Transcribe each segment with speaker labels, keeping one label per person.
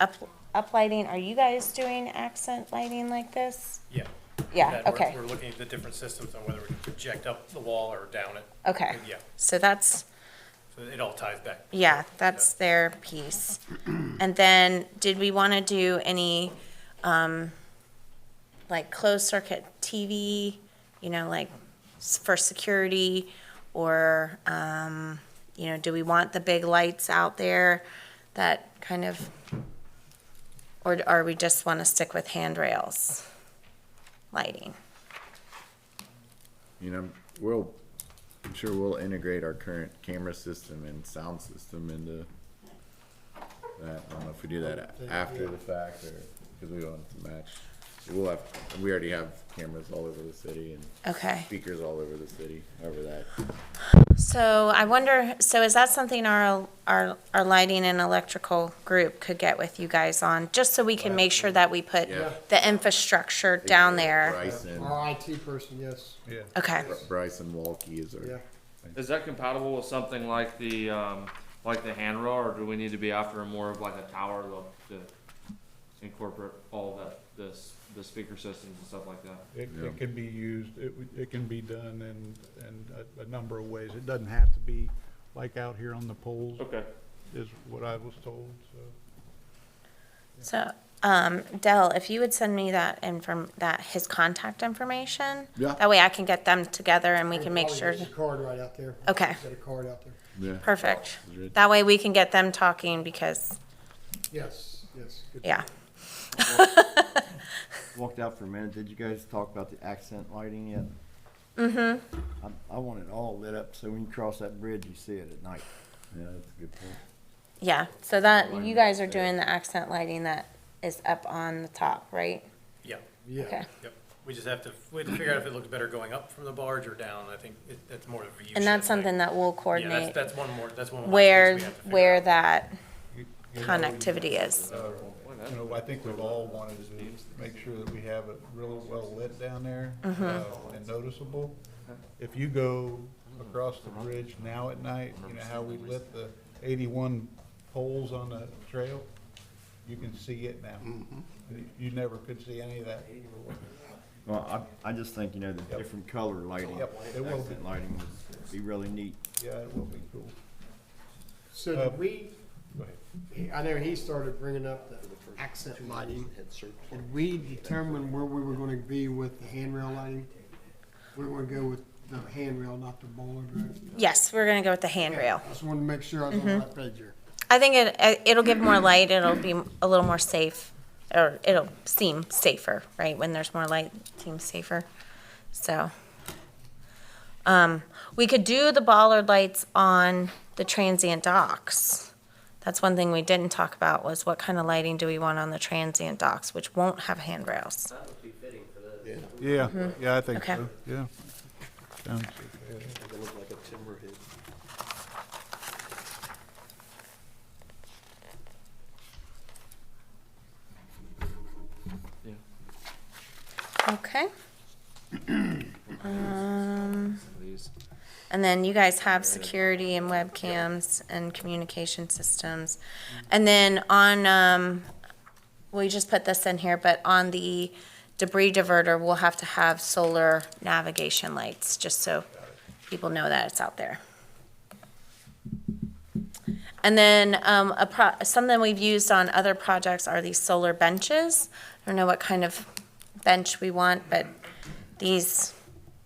Speaker 1: Up, uplighting, are you guys doing accent lighting like this?
Speaker 2: Yeah.
Speaker 1: Yeah,
Speaker 2: That we're-
Speaker 1: okay.
Speaker 2: We're looking at the different systems on whether we can project up the wall or down it.
Speaker 1: Okay.
Speaker 2: Yeah,
Speaker 1: So that's,
Speaker 2: so it all ties back.
Speaker 1: yeah, that's their piece. And then, did we want to do any, um, like closed circuit TV, you know, like s- for security? Or, um, you know, do we want the big lights out there that kind of, or are we just want to stick with handrails lighting?
Speaker 3: You know, we'll, I'm sure we'll integrate our current camera system and sound system into that. I don't know if we do that after the fact or, because we want it to match. We'll have, we already have cameras all over the city and
Speaker 1: Okay.
Speaker 3: speakers all over the city, over that.
Speaker 1: So I wonder, so is that something our, our, our lighting and electrical group could get with you guys on? Just so we can make sure that we put
Speaker 3: Yeah.
Speaker 1: the infrastructure down there?
Speaker 3: Bryson,
Speaker 4: Our IT person, yes,
Speaker 1: Okay,
Speaker 3: Bryson Walkie is
Speaker 4: yeah.
Speaker 3: our,
Speaker 5: Is that compatible with something like the, um, like the handrail, or do we need to be after more of like a tower to, to incorporate all that, this, the speaker systems and stuff like that?
Speaker 6: It,
Speaker 3: Yeah.
Speaker 6: it can be used, it, w- it can be done in, in a, a number of ways. It doesn't have to be like out here on the poles,
Speaker 5: Okay.
Speaker 6: is what I was told, so.
Speaker 1: so, um, Dell, if you would send me that inform, that, his contact information?
Speaker 3: Yeah.
Speaker 1: That way I can get them together and we can make
Speaker 4: Probably
Speaker 1: sure,
Speaker 4: There's a card right out there.
Speaker 1: Okay.
Speaker 4: Got a card out there.
Speaker 3: yeah.
Speaker 1: perfect. That way we can get them talking because,
Speaker 4: Yes, yes. good.
Speaker 1: yeah.
Speaker 7: walked out for a minute, did you guys talk about the accent lighting yet? Mm-hmm. I, I want it all lit up, so when you cross that bridge, you see it at night.
Speaker 3: Yeah, that's a good point.
Speaker 1: Yeah, so that, you guys are doing the accent lighting that is up on the top, right?
Speaker 2: Yeah,
Speaker 4: Yeah.
Speaker 1: Okay.
Speaker 2: yep. We just have to, we have to figure out if it looks better going up from the barge or down. I think it- that's more of a view.
Speaker 1: And that's
Speaker 2: shed
Speaker 1: something
Speaker 2: thing.
Speaker 1: that we'll
Speaker 2: Yeah, that's,
Speaker 1: coordinate
Speaker 2: that's one more, that's one. more piece
Speaker 1: where,
Speaker 2: we have to figure
Speaker 1: where
Speaker 2: out.
Speaker 1: that connectivity is.
Speaker 6: You know, I think we've all wanted to make sure that we have it really well lit down there uh, and noticeable. If you go across the bridge now at night, you know how we lit the eighty-one poles on the trail? You can see it now. You- You never could see any of that.
Speaker 7: Well, I, I just think, you know, the
Speaker 6: Yep.
Speaker 7: different color lighting,
Speaker 6: Yep, it will be.
Speaker 7: accent lighting would be really neat.
Speaker 6: Yeah, it will be cool.
Speaker 4: So
Speaker 6: Uh,
Speaker 4: did we,
Speaker 6: Go ahead.
Speaker 4: he- I know he started bringing up the accent lighting. Did we determine where we were gonna be with the handrail lighting? We were gonna go with the handrail, not the bollard road.
Speaker 1: Yes, we're gonna go with the handrail.
Speaker 4: Just wanted to make sure I was on
Speaker 1: Mm-hmm.
Speaker 4: the right page here.
Speaker 1: I think it, it- it'll give more light, it'll be a little more safe, or it'll seem safer, right? When there's more light, it seems safer, so. Um, we could do the bollard lights on the transient docks. That's one thing we didn't talk about, was what kind of lighting do we want on the transient docks, which won't have handrails.
Speaker 6: Yeah, yeah, I think
Speaker 1: Okay.
Speaker 6: so, yeah. Sounds-
Speaker 1: Okay. Um, And then you guys have security and webcams and communication systems. And then on, um, we just put this in here, but on the debris diverter, we'll have to have solar navigation lights, just so people know that it's out there. And then um, a pro, something we've used on other projects are these solar benches. I don't know what kind of bench we want, but these,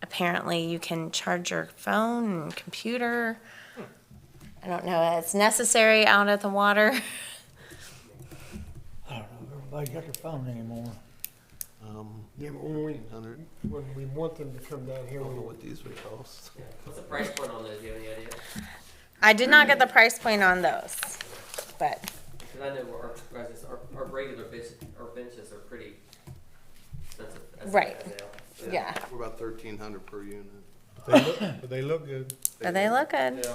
Speaker 1: apparently you can charge your phone and computer. I don't know, if it's necessary out at the water.
Speaker 8: Everybody got their phone anymore.
Speaker 4: Um, Yeah, but when we, when we want them to come down here, we
Speaker 8: these would cost.
Speaker 9: What's the price point on those? Do you have any idea?
Speaker 1: I did not get the price point on those, but,
Speaker 9: Because I know our, residents- our, our regular bench, our benches are pretty expensive. as it
Speaker 1: Right.
Speaker 9: is now.
Speaker 1: yeah,
Speaker 8: We're about thirteen hundred per unit.
Speaker 6: But they look, but they look good.
Speaker 1: but they look good.
Speaker 5: Yeah.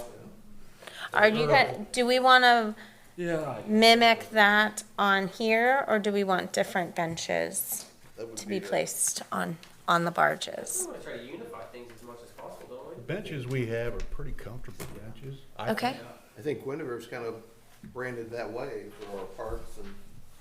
Speaker 1: Are you, gonna- do we wanna
Speaker 5: Yeah.
Speaker 1: mimic that on here, or do we want different benches
Speaker 8: That would
Speaker 1: to be placed on, on the
Speaker 9: We
Speaker 1: barges?
Speaker 9: want to try to unify things as much as possible, don't we?
Speaker 6: The Benches we have are pretty comfortable benches. I
Speaker 1: Okay,
Speaker 8: I think Guinevere's kind of branded that way for our parks and